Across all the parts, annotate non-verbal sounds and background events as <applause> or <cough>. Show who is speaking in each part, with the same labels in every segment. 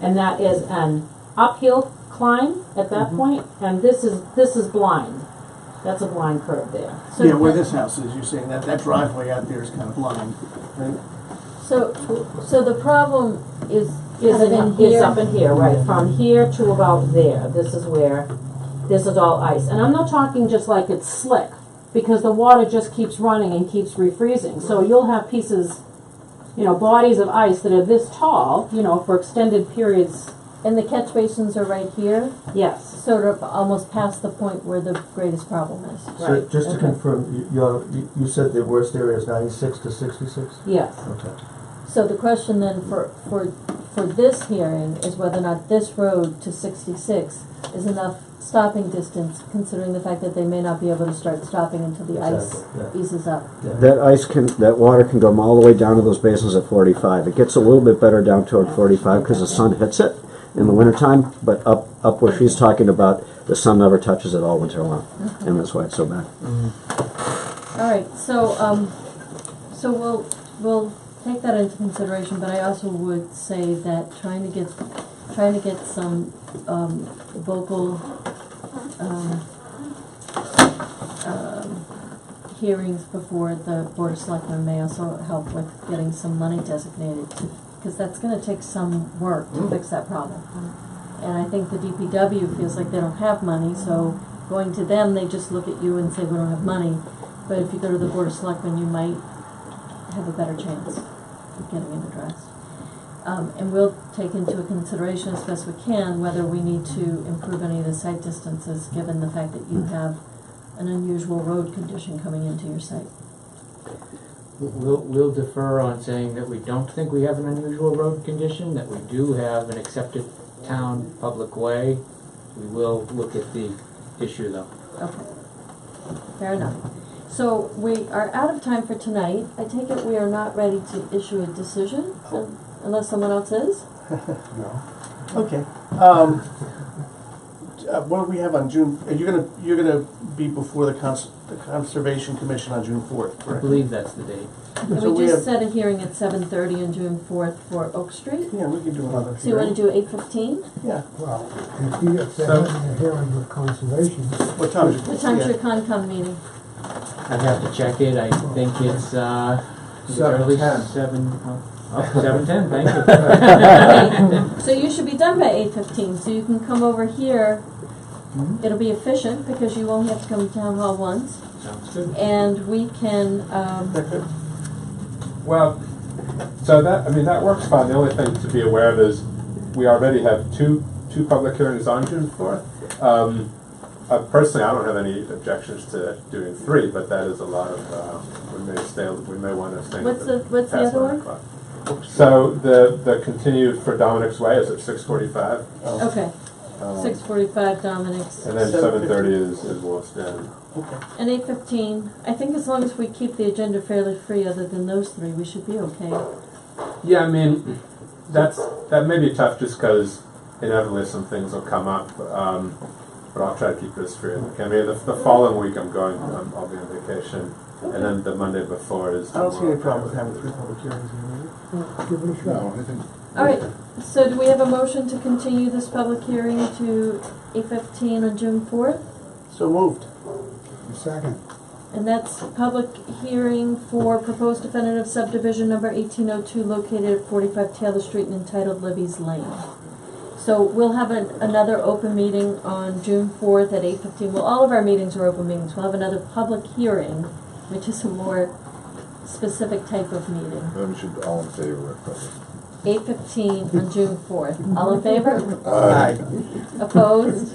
Speaker 1: and that is an uphill climb at that
Speaker 2: Mhm.
Speaker 1: point, and this is, this is blind. That's a blind curve there.
Speaker 3: So
Speaker 2: Yeah, where
Speaker 3: that-
Speaker 2: this house is, you're saying that, that driveway out there is kind of blind, right?
Speaker 3: So, so the problem is
Speaker 1: Is
Speaker 3: kind of in
Speaker 1: in,
Speaker 3: here.
Speaker 1: is up in here, right, from here to about there, this is where, this is all ice, and I'm not talking just like it's slick, because the water just keeps running and keeps refreezing, so you'll have pieces, you know, bodies of ice that are this tall, you know, for extended periods,
Speaker 3: And the catch basins are right here,
Speaker 1: yes,
Speaker 3: sort of almost past the point where the greatest problem is.
Speaker 4: So
Speaker 1: right,
Speaker 4: just to
Speaker 3: okay.
Speaker 4: confirm, you- you're, you- you said the worst area is ninety-six to sixty-six?
Speaker 1: yes.
Speaker 4: Okay.
Speaker 3: So the question then for, for, for this hearing is whether or not this road to sixty-six is enough stopping distance, considering the fact that they may not be able to start stopping until the ice
Speaker 4: Exactly, yeah.
Speaker 3: eases up.
Speaker 4: Yeah.
Speaker 5: That ice can, that water can come all the way down to those basins at forty-five. It gets a little bit better down toward forty-five because the sun hits it in the wintertime, but up, up where she's talking about, the sun never touches it all winter long, and that's why it's so bad.
Speaker 3: All right, so, um, so we'll, we'll take that into consideration, but I also would say that trying to get, trying to get some, um, vocal, um, um, hearings before the Board of Selectmen may also help with getting some money designated, because that's gonna take some work to fix that problem. And I think the DPW feels like they don't have money, so going to them, they just look at you and say, we don't have money. But if you go to the Board of Selectmen, you might have a better chance of getting it addressed. Um, and we'll take into consideration as best we can whether we need to improve any of the site distances, given the fact that
Speaker 6: Hmm.
Speaker 3: you have an unusual road condition coming into your site.
Speaker 6: We'll, we'll defer on saying that we don't think we have an unusual road condition, that we do have an accepted town public way. We will look at the issue though.
Speaker 3: Okay. Fair enough. So we are out of time for tonight. I take it we are not ready to issue a decision un- unless someone else is?
Speaker 2: Okay, um, uh, what do we have on June, are you gonna, you're gonna be before the cons, the Conservation Commission on June fourth,
Speaker 6: I
Speaker 2: correct?
Speaker 6: believe that's the date.
Speaker 3: And
Speaker 2: So
Speaker 3: we
Speaker 2: we
Speaker 3: just
Speaker 2: have-
Speaker 3: set a hearing at seven thirty on June fourth for Oak Street.
Speaker 2: Yeah, we can do another
Speaker 3: So you wanna
Speaker 2: hearing.
Speaker 3: do eight fifteen?
Speaker 2: Yeah,
Speaker 7: Well, if you, if they're having a hearing with conservation,
Speaker 2: what time is it?
Speaker 3: What time's
Speaker 2: Yeah.
Speaker 3: your
Speaker 2: <laughs>
Speaker 3: Concom meeting?
Speaker 6: I'd have to check it, I think it's, uh, is it
Speaker 8: Seven
Speaker 6: early
Speaker 8: ten.
Speaker 6: seven, oh, oh, seven ten, thank you.
Speaker 3: Okay, So you should be done by eight fifteen, so you can come over here.
Speaker 2: Hmm?
Speaker 3: It'll be efficient because you won't have to come to town hall once
Speaker 4: <laughs>
Speaker 6: Sounds good.
Speaker 3: and we can, um,
Speaker 8: Well, so that, I mean, that works fine. The only thing to be aware of is we already have two, two public hearings on June fourth. Um, uh, personally, I don't have any objections to doing three, but that is a lot of, uh, we may stay, we may wanna stay.
Speaker 3: What's the- what's the
Speaker 8: past
Speaker 3: other
Speaker 8: nine
Speaker 3: one?
Speaker 8: o'clock. So the, the continued for Dominic's Way is at six forty-five.
Speaker 2: Oh,
Speaker 3: okay,
Speaker 2: Uh,
Speaker 3: six forty-five Dominic's.
Speaker 8: And then
Speaker 2: Seven
Speaker 8: seven thirty is, is Wolfstone.
Speaker 2: Okay.
Speaker 3: And eight fifteen, I think as long as we keep the agenda fairly free, other than those three, we should be okay.
Speaker 8: Yeah, I mean, that's that may be tough just because inevitably some things will come up. Um, but I'll try to keep this free. I mean, the, the following week I'm going. I'm, I'll be on vacation, and then the Monday before is.
Speaker 2: I don't see any
Speaker 8: tomorrow.
Speaker 2: problem with having three public hearings in a meeting.
Speaker 7: give it a shot.
Speaker 3: All right, so do we have a motion to continue this public hearing to eight fifteen on June fourth?
Speaker 2: So moved.
Speaker 7: Second,
Speaker 3: And that's public hearing for proposed definitive subdivision number eighteen oh two located at forty-five Taylor Street and entitled Libby's Lane. So we'll have an, another open meeting on June fourth at eight fifteen. Well, all of our meetings are open meetings. We'll have another public hearing, which is a more specific type of meeting.
Speaker 9: Then we should be all in favor of it.
Speaker 3: Eight fifteen on June fourth. All in favor?
Speaker 2: Aye.
Speaker 3: Opposed?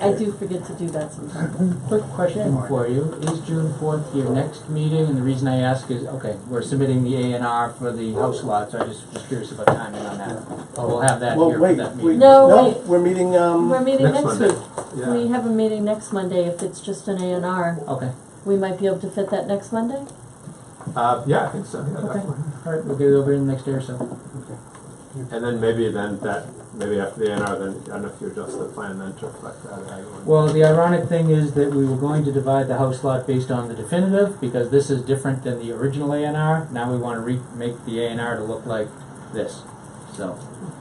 Speaker 3: I do forget to do that sometimes.
Speaker 6: Quick question for you, is June fourth your next meeting? And the reason I ask is, okay, we're submitting the A and R for the house lot, so I just was curious about timing on that. We'll have that
Speaker 2: Well,
Speaker 6: here for
Speaker 2: wait,
Speaker 6: that
Speaker 2: wait,
Speaker 6: meeting.
Speaker 3: No,
Speaker 2: no,
Speaker 3: wait.
Speaker 2: we're meeting, um,
Speaker 3: We're meeting
Speaker 8: Next
Speaker 3: next
Speaker 8: Monday.
Speaker 3: week. We have a meeting next Monday. If it's just an A and R,
Speaker 6: Okay,
Speaker 3: we might be able to fit that next Monday.
Speaker 8: Uh, yeah, I think so. Yeah,
Speaker 6: Okay.
Speaker 8: definitely.
Speaker 6: alright, we'll get it over in the next day or so.
Speaker 8: And then maybe then that maybe after the NR, then I don't know if you adjust the plan then to reflect that. I don't know.
Speaker 6: Well, the ironic thing is that we were going to divide the house lot based on the definitive, because this is different than the original A and R. Now we wanna re- make the A and R to look like this, so.